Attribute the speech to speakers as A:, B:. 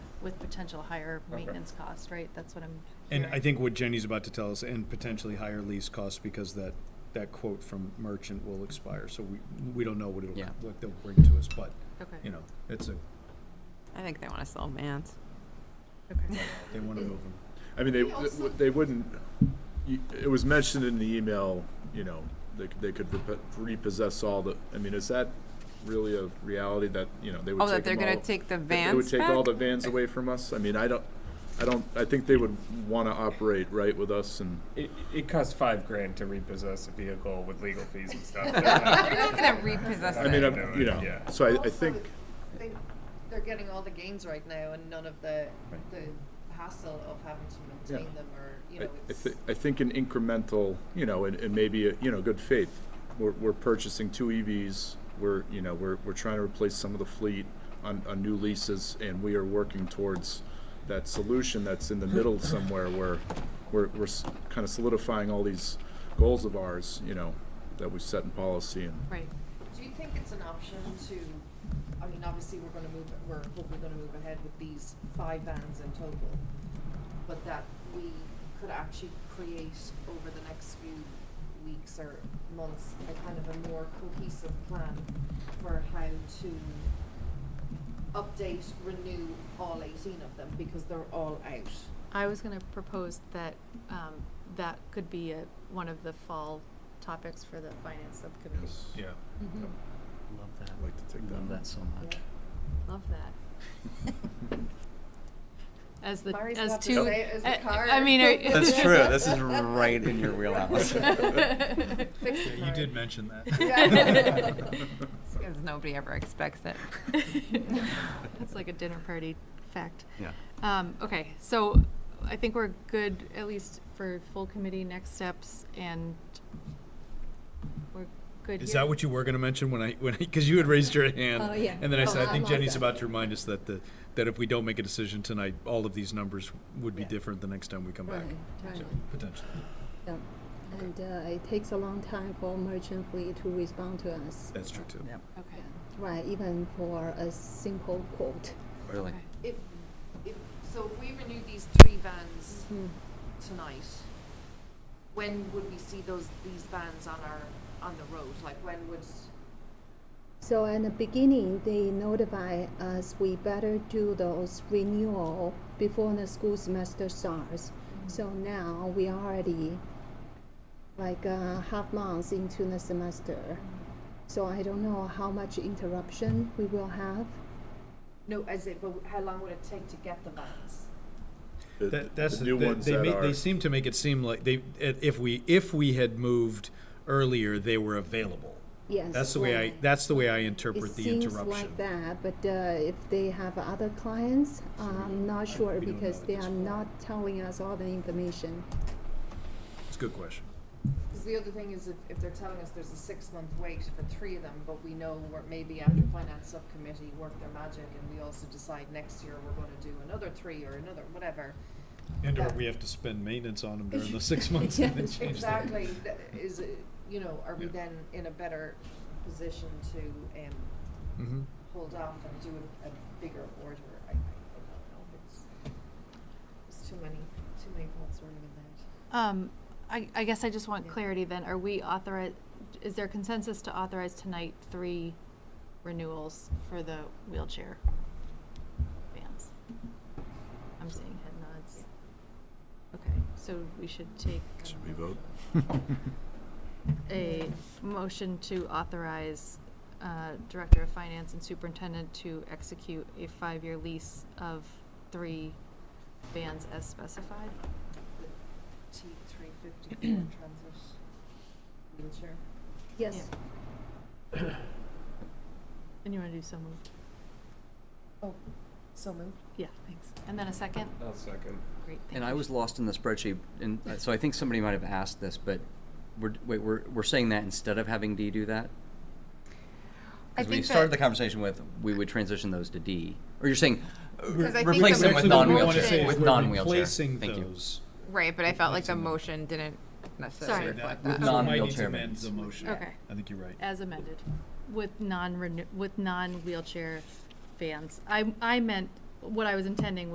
A: with potential higher
B: Okay.
A: maintenance costs, right? That's what I'm
C: And I
A: hearing.
C: think what Jenny's about to tell us, and potentially higher lease costs, because that, that quote from merchant will expire, so we, we don't know what it'll,
D: Yeah.
C: what they'll bring to us, but, you
A: Okay,
C: know, it's a,
E: I think they want to sell vans.
A: okay.
C: they wanna move them.
B: I mean, they, they wouldn't, you- it was mentioned in the email, you know, they, c- they could repo- repossess all the, I mean, is that really a reality that, you know, they would
E: Oh,
B: take
E: that they're
B: them
E: going
B: all-
E: to take the
B: that They would
E: vans
B: take all
E: back?
B: the vans away from us? I mean, I don't, I don't, I think they would wanna operate right with us and,
F: It, it costs five grand to repossess a vehicle with legal fees and stuff. They're not-
E: They're not going to repossess
B: I
D: uh,
E: it.
B: mean, I'm, you know,
F: Yeah.
B: so I, I
G: Also,
B: think,
G: they, they're getting all the gains right now and none of the, the hassle of having to maintain
B: Yeah.
G: them or, you
B: I,
G: know,
B: I
G: it's.
B: thi- I think an incremental, you know, and, and maybe, a- you know, good faith. We're, we're purchasing two EVs, we're, you know, we're, we're trying to replace some of the fleet on, on new leases, and we are working towards that solution that's in the middle somewhere where we're, we're kind of solidifying all these goals of ours, you know, that we set in policy and.
A: Right.
G: Do you think it's an option to, I mean, obviously, we're gonna move, we're hopefully gonna move ahead with these five vans in total, but that we could actually create over the next few weeks or months, a kind of a more cohesive plan for how to update, renew all eighteen of them, because they're all out.
A: I was gonna propose that, um, that could be a, one of the fall topics for the finance subcommittee.
B: Yeah.
G: Mm-hmm.
D: Love that.
B: I'd like to take that
D: Love
B: one.
D: that so much.
A: Love that. As the,
G: Mari's
A: as
G: about to
A: two,
G: say it as the
A: I-
G: card.
A: I mean, are.
D: That's true. This is right in your wheelhouse.
G: Fix it, Mari.
C: mention that.
G: Yeah.
E: Because nobody ever expects it.
A: That's like a dinner party fact.
D: Yeah.
A: Um, okay, so I think we're good, at least for full committee next steps, and we're good here.
C: Is that what you were gonna mention when I, when, because you had raised your hand?
H: Oh, yeah.
C: And then I
A: Oh,
C: said, I
A: I
C: think
A: like
C: Jenny's
A: that.
C: about to remind us that the, that if we don't make a decision tonight, all of these numbers would be different the next time we come back,
A: Totally.
C: potentially.
H: Yeah. And uh, it takes a long time for merchant fleet to respond to us.
C: That's true too.
D: Yep,
A: Okay,
H: Right, even for a simple quote.
D: really.
A: okay.
G: If, if, so if we renew these three vans
H: Mm.
G: tonight, when would we see those, these vans on our, on the road? Like, when would,
H: So in the beginning, they notify us we better do those renewal before the school semester starts.
C: Mm-hmm.
H: So now we already like uh, half months into the semester.
C: Mm-hmm.
H: So I don't know how much interruption we will have.
G: no, as it, but how long would it take to get the vans?
B: The-
C: That, that's
B: the new
C: they,
B: ones
C: they,
B: that
C: ma-
B: are.
C: they seem to make it seem like they if we if we had moved earlier they were available.
H: Yes.
C: That's the way I that's the way I interpret
H: It
C: the
H: seems
C: interruption.
H: like that, but uh, if they have other clients, I'm not sure
C: we don't know
H: because
C: at
H: they
C: this
H: are
C: point.
H: not telling us all the information.
C: It's a good question.
G: Because the other thing is, if, if they're telling us there's a six-month wait for three of them, but we know we're, maybe after finance subcommittee work their magic, and we also decide next year we're gonna do another three or another, whatever.
C: And or
G: Yeah.
C: we have to spend maintenance on them during the six months and then change that.
G: Exactly, That is, it- you know, are we
C: Yeah.
G: then in a better position to, um,
C: Mhm.
G: hold off and do a, a bigger order? I, I don't know, oh, it's, there's too many, too many thoughts swirling in my head.
A: Um, I, I guess I just want
G: Yeah.
A: clarity then, are we authorized, is there consensus to authorize tonight three renewals for the wheelchair vans? I'm seeing head nods. Okay, so we should take
B: Should we vote?
A: a motion to authorize, uh, Director of Finance and Superintendent to execute a five-year lease of three vans as specified.
G: T three fifty transit wheelchair.
H: Yes,
A: And you wanna do so moved?
G: Oh, So moved.
A: Yeah, thanks. And then a second?
F: I'll second.
A: Great, thank you.
D: And I was lost in the spreadsheet, and uh, so I think somebody might have asked this, but we're, wait, we're, we're saying that instead of having D do that?
E: I
D: Because we
E: think
D: started the
E: that-
D: conversation with, we would transition those to D. Or you're saying, uh,
E: Because I think
D: replace
E: the
D: them with
C: Actually, what we wanna
E: motion-
C: say
D: non-wheelchair,
C: is
D: with
C: we're
D: non-wheelchair.
C: replacing
D: Thank you.
C: those.
E: Right, but I felt like the
C: Replacing them.
E: motion didn't
A: Sorry.
E: necessarily reflect
C: So we might
E: that.
C: need to
D: Non-wheelchair
C: amend
D: maintenance.
C: the motion.
A: Okay.
C: I think you're right.
A: As amended, with non-renew, with non-wheelchair vans. I, I meant, what I was intending